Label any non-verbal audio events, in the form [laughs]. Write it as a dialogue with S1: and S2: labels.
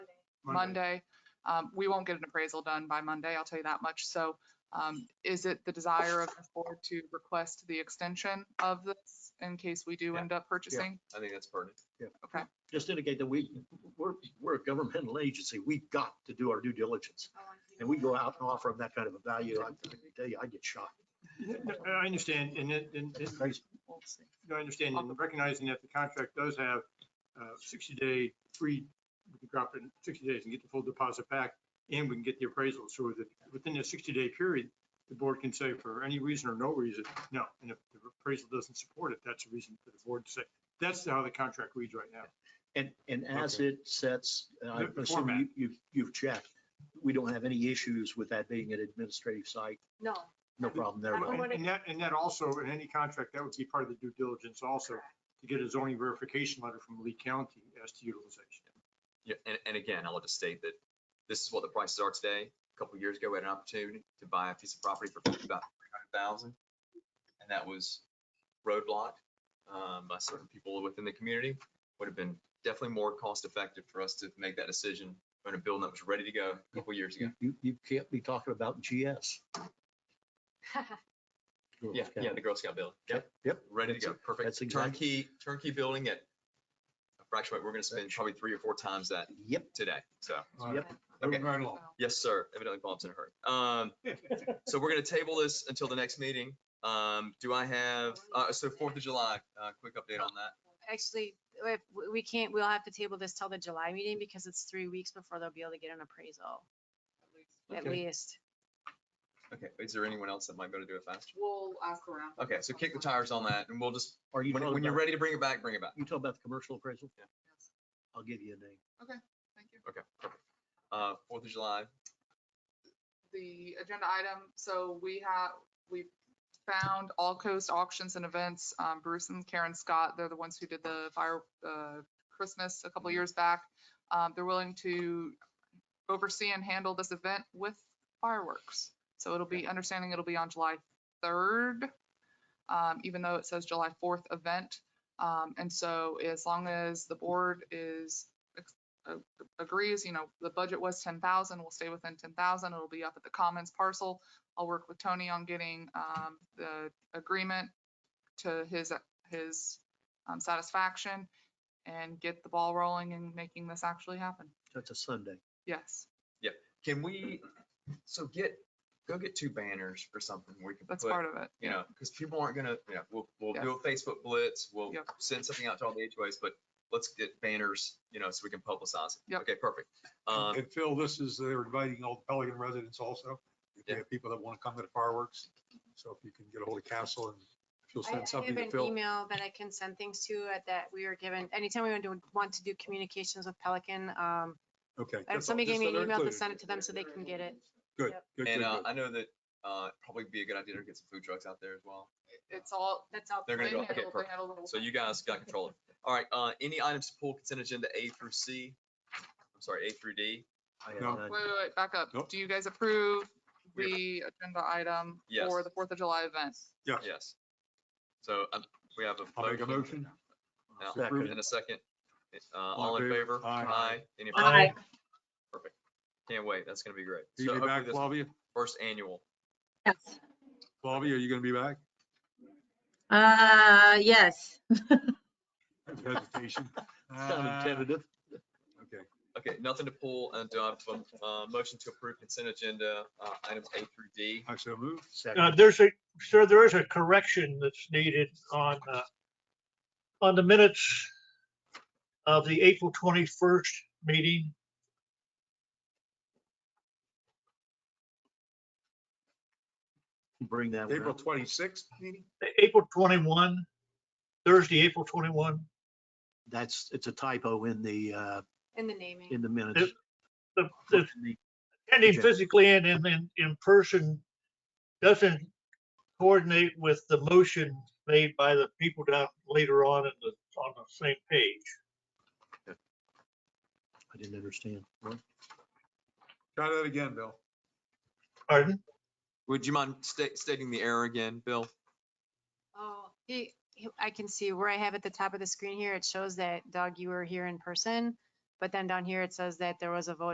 S1: Monday. Um, we won't get an appraisal done by Monday, I'll tell you that much. So, um, is it the desire of the board to request the extension of this in case we do
S2: Yeah.
S1: end up purchasing?
S2: I think that's pertinent.
S1: Okay.
S3: just indicate that we, we're, we're a governmental agency. We've got to do our due diligence. And we go out and offer them that kind of a value. I I tell you, I get shocked.
S4: I understand, and, it- and,
S3: It's
S4: it-
S3: crazy.
S1: We'll see.
S4: I understand, and recognizing that the contract does have uh, 60-day free, we can drop it in 60 days and get the full deposit back, and we can get the appraisal. So that within the 60-day period, the board can say for any reason or no reason, no. And if the appraisal doesn't support it, that's a reason for the board to say, that's how the contract reads right now.
S3: And, and as it sets, and I
S4: The- the
S3: assume
S4: format.
S3: you, you've, you've checked, we don't have any issues with that being an administrative site.
S5: No, [laughs]
S3: No problem there.
S5: I don't
S3: right?
S5: want-
S4: And and that, and that also, in any contract, that would be part of the due diligence also,
S5: Correct.
S4: to get a zoning verification letter from Lee County as to utilization.
S2: Yeah, and, and again, I'll just state that this is what the prices are today. A couple years ago, we had an opportunity to buy a piece of property for about three hundred thousand. And that was roadblocked, um, by certain people within the community. Would have been definitely more cost effective for us to make that decision on a building that was ready to go a couple years ago.
S3: You- You, you can't be talking about GS. Girl
S2: Yeah,
S3: Scout.
S2: yeah, the Girl Scout building. Yep,
S3: Yep.
S2: ready to
S3: That's
S2: go. Perfect.
S3: that's exactly-
S2: Turnkey, turnkey building at a fraction, of what we're gonna spend probably three or four times that
S3: Yep.
S2: today. So,
S3: Yep.
S2: okay.
S1: So,
S2: Yes, sir. Evidently Bob's in a hurry. Um, So we're gonna table this until the next meeting. Um, do I have, uh, so Fourth of July, uh, quick update on that.
S5: actually, we- we can't, we'll have to table this till the July meeting because it's three weeks before they'll be able to get an appraisal, at
S2: Okay.
S5: least.
S2: Okay, is there anyone else that might go to do it faster?
S1: We'll ask around.
S2: Okay, so kick the tires on that and we'll just,
S3: Are you
S2: when,
S3: talking
S2: when you're
S3: about-
S2: ready to bring it back, bring it back.
S3: You talking about the commercial appraisal?
S2: Yeah.
S3: I'll give you a name.
S1: Thank you.
S2: Okay. perfect. Uh, Fourth of July,
S1: the agenda item, so we have, we found All Coast Auctions and Events, um, Bruce and Karen Scott, they're the ones who did the fire, uh, Christmas a couple years back. Um, they're willing to oversee and handle this event with fireworks. So it'll be, understanding it'll be on July third, um, even though it says July fourth event. Um, and so as long as the board is agrees, you know, the budget was ten thousand, we'll stay within ten thousand, it'll be up at the commons parcel. I'll work with Tony on getting um the agreement to his his um satisfaction and get the ball rolling and making this actually happen.
S3: That's a Sunday.
S1: Yes,
S2: can we, so get, go get two banners or something where we can
S1: that's
S2: put
S1: part of it.
S2: you know, because people aren't gonna, you know, we'll, we'll
S1: Yeah.
S2: do a Facebook blitz, we'll
S1: Yep.
S2: send something out to all the HOAs, but let's get banners, you know, so we can publicize it.
S1: Yep.
S2: Okay, perfect.
S6: And
S2: Um,
S6: and Phil, this is, they're inviting all Pelican residents also. If
S2: Yeah.
S6: they have people that want to come to the fireworks, so if you can get a hold of Castle and she'll
S5: I I
S6: send
S5: have
S6: something to
S5: an
S6: Phil.
S5: email that I can send things to at that we were given, anytime we want to, want to do communications with Pelican, um,
S6: Okay.
S5: uh,
S6: that's all,
S5: somebody gave
S6: just
S5: me
S6: so
S5: an
S6: they're
S5: email to
S6: included.
S5: send it to them so they can get it.
S6: Good,
S5: Yep.
S6: good,
S2: and,
S6: good,
S2: uh,
S6: good.
S2: I know that, uh, probably be a good idea to get some food trucks out there as well.
S1: It's all,
S5: That's all.
S2: They're
S1: they
S2: gonna go,
S1: handle,
S2: okay,
S1: they
S2: perfect.
S1: handle the whole
S2: So
S1: thing.
S2: you guys got control of it. All right, uh, any items to pull consent agenda A through C? I'm sorry, A through D?
S3: I have
S6: No.
S3: none.
S1: Wait, wait, wait, back up.
S6: Nope.
S1: Do you guys approve
S2: We appro-
S1: the agenda item
S2: Yes.
S1: for the Fourth of July event?
S6: Yes.
S2: Yes. So, um, we have
S6: I'll make a
S2: a motion
S6: motion.
S2: Now,
S3: Second.
S2: and a second. Uh, all in favor?
S6: Aye.
S2: Any
S5: Aye.
S2: opposed? Perfect. Can't wait. That's gonna be great.
S6: Are you
S2: So
S6: gonna be
S2: hopefully
S6: back,
S2: this
S6: Flavia?
S2: first annual.
S7: Yes.
S6: Flavia, are you going to be
S2: [laughs]
S6: back?
S7: Uh, yes.
S6: Hesitation.
S2: uh,
S3: Sounded tentative.
S6: Ah, Okay.
S2: Okay, nothing to pull and do I have a, uh, motion to approve consent agenda, uh, items A through D?
S6: I shall move.
S3: Second.
S8: Uh, there's a, sir, there is a correction that's needed on, uh, on the minutes of the April 21st meeting.
S3: Bring that one
S6: April
S3: up.
S6: 26th meeting?
S8: April 21, Thursday, April 21.
S3: That's, it's a typo in the, uh,
S5: In the naming.
S3: in the minutes.
S8: The, the attending
S3: Agenda.
S8: physically and in, in, in person doesn't coordinate with the motion made by the people down later on in the, on the same page.
S3: I didn't understand. What?
S6: Try that again, Bill.
S8: Pardon?
S2: Would you mind sta- stating the error again, Bill?
S5: Oh, he, he- I can see where I have at the top of the screen here, it shows that Doug, you were here in person. But then down here, it says that there was a vote